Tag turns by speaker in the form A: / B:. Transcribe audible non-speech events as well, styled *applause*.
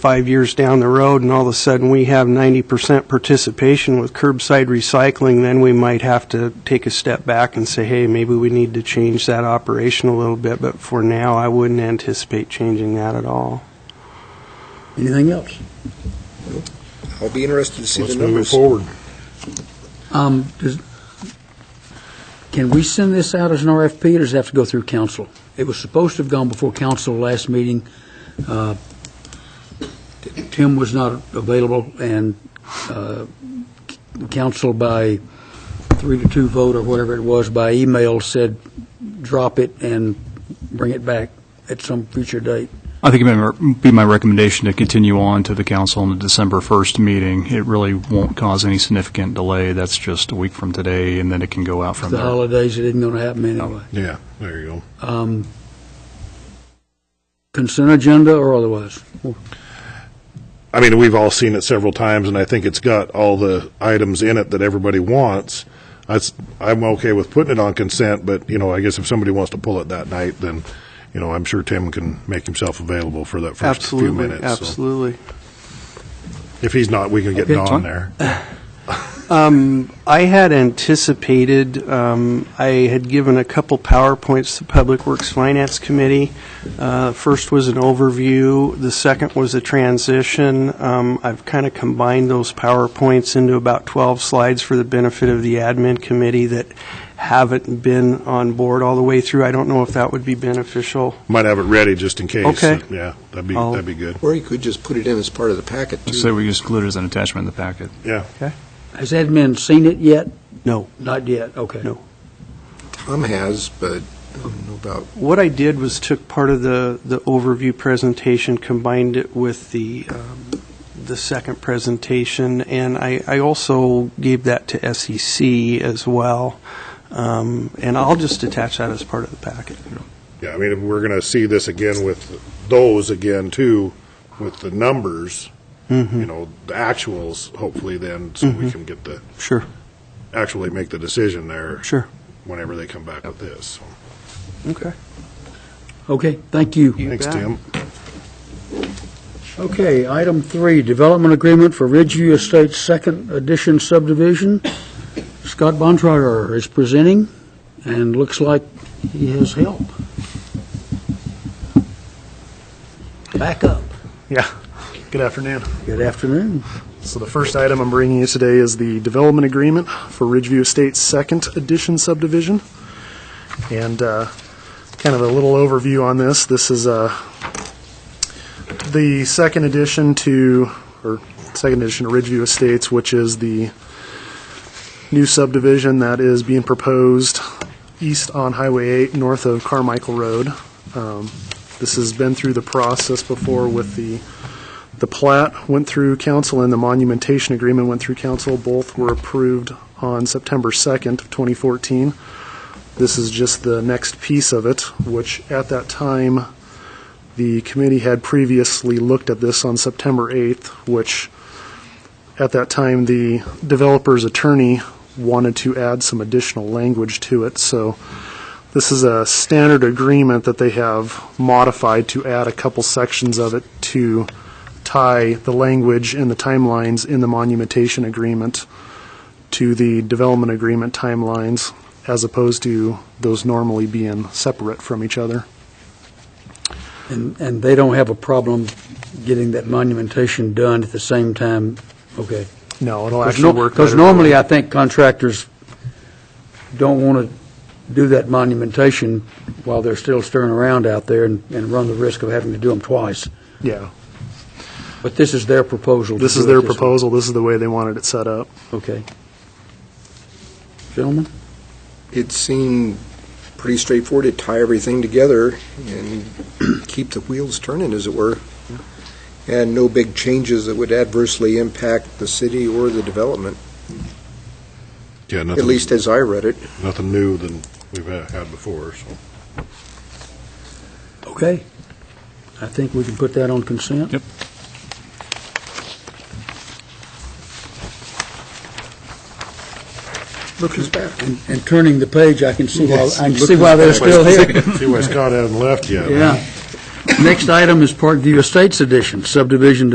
A: five years down the road, and all of a sudden we have 90% participation with curbside recycling, then we might have to take a step back and say, hey, maybe we need to change that operation a little bit, but for now, I wouldn't anticipate changing that at all.
B: Anything else?
C: I'll be interested to see the
D: Let's move it
C: numbers.
D: forward.
B: Um, does, can we send this out as an RFP, or does it have to go through council? It was supposed to have gone before council last meeting. Uh, Tim was not available, and uh, council by three to two vote, or whatever it was, by email said, drop it and bring it back at some future date.
E: I think it would be my recommendation to continue on to the council on the December 1st meeting. It really won't cause any significant delay. That's just a week from today, and then it can go out from
B: The
E: there.
B: holidays, it isn't going to happen anyway.
D: Yeah, there you go.
B: Um, Consent agenda or otherwise?
D: I mean, we've all seen it several times, and I think it's got all the items in it that everybody wants. That's, I'm okay with putting it on consent, but, you know, I guess if somebody wants to pull it that night, then, you know, I'm sure Tim can make himself available for that first few
A: Absolutely,
D: minutes. so.
A: absolutely.
D: If he's not, we can get
B: Okay.
D: Don there.
A: Um, I had anticipated, um, I had given a couple PowerPoints to Public Works Finance Committee. Uh, First was an overview, the second was a transition. Um, I've kind of combined those PowerPoints into about 12 slides for the benefit of the admin committee that haven't been on board all the way through. I don't know if that would be beneficial.
D: Might have it ready just in case.
A: Okay.
D: Yeah, that'd be,
A: I'll-
D: that'd be good.
C: Or you could just put it in as part of the packet, too.
E: So we just include it as an attachment in the packet.
D: Yeah.
B: Has admin seen it yet?
A: No.
B: Not yet, okay.
A: No.
C: Tom has, but I don't know about,
A: What I did was took part of the, the overview presentation, combined it with the, um, the second presentation, and I, I also gave that to SEC as well. Um, And I'll just attach that as part of the packet.
D: Yeah, I mean, if we're going to see this again with those again too, with the numbers,
B: Mm-hmm.
D: you know, the actuals, hopefully then, so we can get the,
A: Sure,
D: actually make the decision there.
A: sure.
D: Whenever they come back with this. So,
A: Okay.
B: Okay, thank you.
A: You
D: Thanks,
A: bet.
D: Tim.
B: Okay, item three, development agreement for Ridgeview Estates Second Edition subdivision. Scott Bontrager is presenting, and looks like he has help. Back up.
F: Yeah. Good afternoon.
B: Good afternoon.
F: So the first item I'm bringing you today is the development agreement for Ridgeview Estates Second Edition subdivision. And uh, kind of a little overview on this. This is uh, the second addition to, or second addition to Ridgeview Estates, which is the new subdivision that is being proposed east on Highway 8, north of Carmichael Road. Um, This has been through the process before with the the plat went through council and the monumentation agreement went through council. Both were approved on September 2nd of 2014. This is just the next piece of it, which at that time, the committee had previously looked at this on September 8th, which at that time, the developer's attorney wanted to add some additional language to it. So this is a standard agreement that they have modified to add a couple sections of it to tie the language and the timelines in the monumentation agreement to the development agreement timelines, as opposed to those normally being separate from each other.
B: And, and they don't have a problem getting that monumentation done at the same time, okay.
F: No, it'll
B: Because
F: actually
B: no-
F: work.
B: Because
F: better that way.
B: normally, I think contractors don't want to do that monumentation while they're still stirring around out there and, and run the risk of having to do them twice.
F: Yeah,
B: But this is their proposal. to
F: this is
B: do it
F: their
B: way.
F: proposal, this is the way they wanted it set up.
B: Okay. Gentlemen,
C: it seemed pretty straightforward to tie everything together and *clears throat* keep the wheels turning, as it were, and no big changes that would adversely impact the city or the development,
D: Yeah,
C: at
D: nothing,
C: least as I read it.
D: nothing new than we've uh, had before, so.
B: okay. I think we can put that on consent.
E: Yep.
B: Look who's back. And turning the page, I can see why, I can
C: Yes, look
B: see why they're
C: who's back.
B: still here.
D: *laughs* See why Scott hasn't left yet. huh?
B: Yeah. Next item is Parkview Estates Edition, subdivision